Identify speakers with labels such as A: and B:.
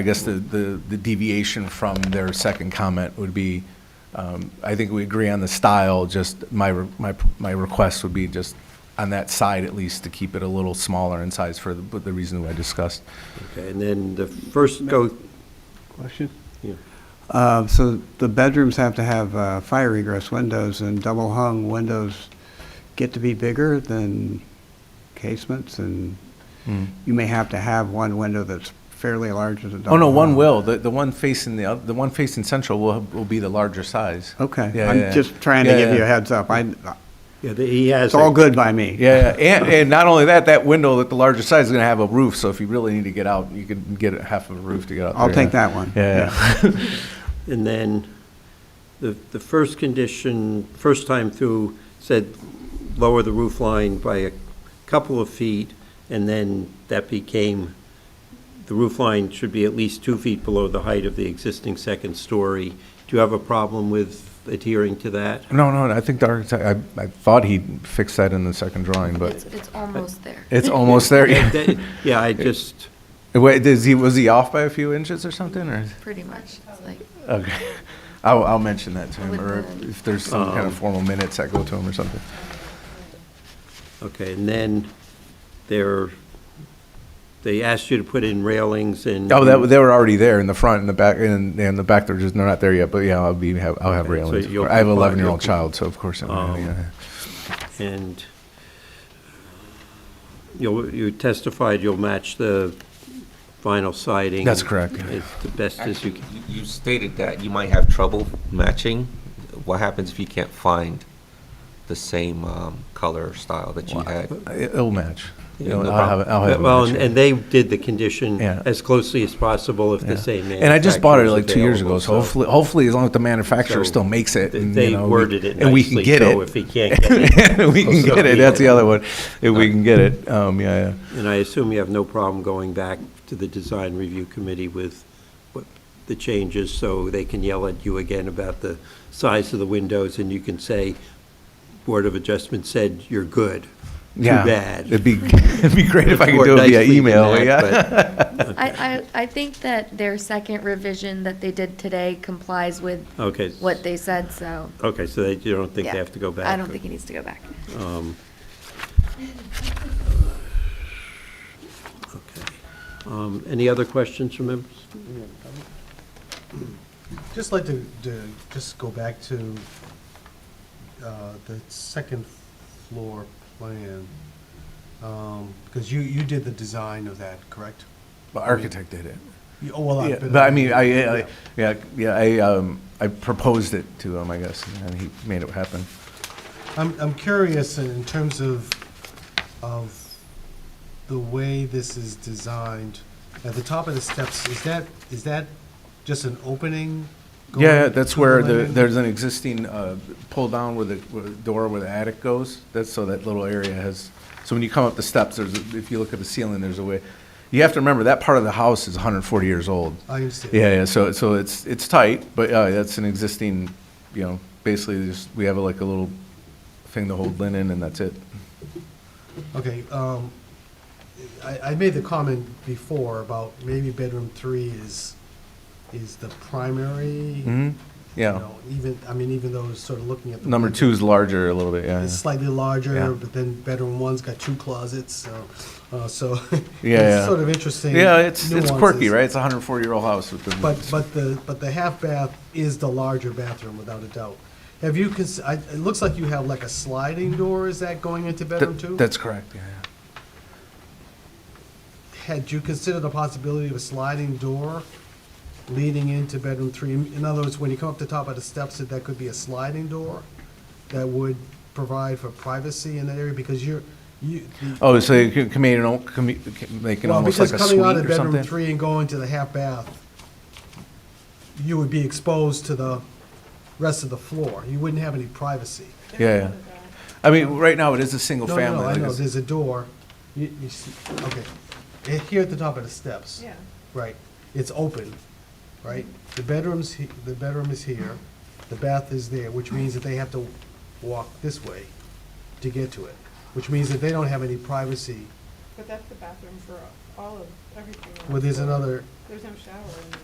A: I guess the, the the deviation from their second comment would be, um, I think we agree on the style, just my, re- my, my request would be just on that side at least to keep it a little smaller in size for the, the reason I discussed.
B: Okay, and then the first go,
C: Question?
B: yeah.
C: Uh, So the bedrooms have to have uh, fire egress windows, and double-hung windows get to be bigger than casements, and you may have to have one window that's fairly large as a double
A: Hmm. Oh, no, one
C: hung.
A: will, the, the one facing the, oth- the one facing central will, have- will be the larger size.
C: Okay,
A: Yeah, yeah,
C: I'm
A: yeah.
C: just trying to
A: Yeah,
C: give you
A: yeah.
C: a heads up. I,
B: Yeah, the- he has.
C: it's all
B: a-
C: good by me.
A: Yeah, yeah. and, and not only that, that window at the larger size is gonna have a roof, so if you really need to get out, you could get a half of a roof to get out there.
C: I'll
A: yeah.
C: take that one.
A: Yeah,
B: And then the, the first condition, first time through, said lower the roof line by a couple of feet, and then that became, the roof line should be at least two feet below the height of the existing second story. Do you have a problem with adhering to that?
A: no, no, I think the architect, I, I thought he fixed that in the second drawing,
D: It's,
A: but
D: it's almost there.
A: it's almost there.
B: Yeah,
A: yeah.
B: that- yeah, I just,
A: Wait, is he, was he off by a few inches or something, or?
D: Pretty much. It's like,
A: Okay, I'll, I'll mention that to him, or if- if there's some kind
B: Um,
A: of formal minutes that go to him or something.
B: okay, and then there, they asked you to put in railings and.
A: Oh, that, they were already there in the front and the back, and, and the back, they're just, they're not there yet, but yeah, I'll be, have- I'll have
B: Okay, so
A: railings.
B: you'll
A: I have an
B: comply-
A: eleven-year-old
B: you'll-
A: child, so of course, I'm
B: Um,
A: gonna- yeah.
B: And you'll, you testified you'll match the vinyl siding.
A: That's correct.
B: As the best as you
E: Actually,
B: can.
E: you- you stated that you might have trouble matching. What happens if you can't find the same um, color or style that you had?
A: It- uh, it'll match.
E: Yeah,
A: It'll-
E: no
A: I'll have, it- I'll have it
B: Well,
A: match,
B: and-
A: yeah.
B: and they did the condition
A: Yeah.
B: as closely as possible if the same manufacturer
A: And I just bought it like
B: was
A: two years ago,
B: available,
A: so hopefully, hopefully, as long as the manufacturer
B: So
A: still makes it,
B: th-
A: and, you
B: They
A: know, we-
B: worded it
A: and we can
B: nicely,
A: get
B: so
A: it.
B: if he can't get it.
A: we can
B: so
A: get it.
B: be
A: That's
B: it.
A: the other one. If we can get it, um, yeah, yeah.
B: And I assume you have no problem going back to the design review committee with what the changes, so they can yell at you again about the size of the windows, and you can say, Board of Adjustment said, you're good. Too
A: yeah.
B: bad.
A: It'd be it'd be great if I could
B: More
A: do it via
B: nicely than
A: email.
B: that,
A: yeah.
B: but-
D: I, I, I think that their second revision that they did today complies with
B: Okay.
D: what they said, so.
B: Okay, so they, you don't think
D: yeah.
B: they have to go back?
D: I don't think he needs to go back.
B: Um, Okay. Um, Any other questions from members?
F: Just like to, to just go back to uh, the second floor plan, Um, because you, you did the design of that, correct?
A: But architect did it.
F: You- Oh, well,
A: Yeah,
F: I've been.
A: but I mean, I, I yeah, yeah, I um, I proposed it to him, I guess, and he made it happen.
F: I'm, I'm curious in- in terms of, of the way this is designed. At the top of the steps, is that, is that just an opening? going
A: Yeah, that's
F: to
A: where the,
F: landing?
A: there's an existing, uh, pull down where the, where the door where the attic goes. That's so that little area has, so when you come up the steps, there's, a- if you look at the ceiling, there's a way. You have to remember, that part of the house is hundred and forty years old.
F: I understand.
A: Yeah, yeah, so, so it's, it's tight, but, uh, that's an existing, you know, basically just, we have like a little thing to hold linen and that's it.
F: Okay, um, I, I made the comment before about maybe bedroom three is, is the primary. you
A: hmm yeah.
F: know, Even, I mean, even though it's sort of looking at the.
A: Number
F: window,
A: two's larger a little bit, yeah.
F: It's
A: yeah.
F: slightly
A: Yeah.
F: larger, but then bedroom one's got two closets, so, uh, so.
A: Yeah, yeah.
F: It's sort of interesting.
A: Yeah, it's, it's quirky,
F: nuances.
A: right? It's a hundred and forty year old house with the.
F: But, but the, but the half bath is the larger bathroom without a doubt. Have you, cons- I, it looks like you have like a sliding door, is that going into bedroom two?
A: Th- That's correct, yeah, yeah.
F: had you considered the possibility of a sliding door leading into bedroom three? In other words, when you come up the top of the steps, that that could be a sliding door that would provide for privacy in that area because you're, you. the-
A: Oh, so you can come in and al- commu- make it
F: Well,
A: almost like
F: because
A: a
F: coming
A: suite
F: out of
A: or
F: bedroom
A: something?
F: three and going to the half bath, you would be exposed to the rest of the floor. You wouldn't have any privacy.
A: Yeah, yeah. I mean, right now, it is a single
F: No,
A: family.
F: No, no, I
A: like
F: know,
A: it's-
F: there's a door. You, you see, okay. Eh, Here at the top of the steps.
G: Yeah.
F: Right, it's open, right? The bedroom's, he- the bedroom is here, the bath is there, which means that they have to walk this way to get to it, which means that they don't have any privacy
G: But that's the bathroom for all of everything.
F: Well, there's another
G: There's no shower in there.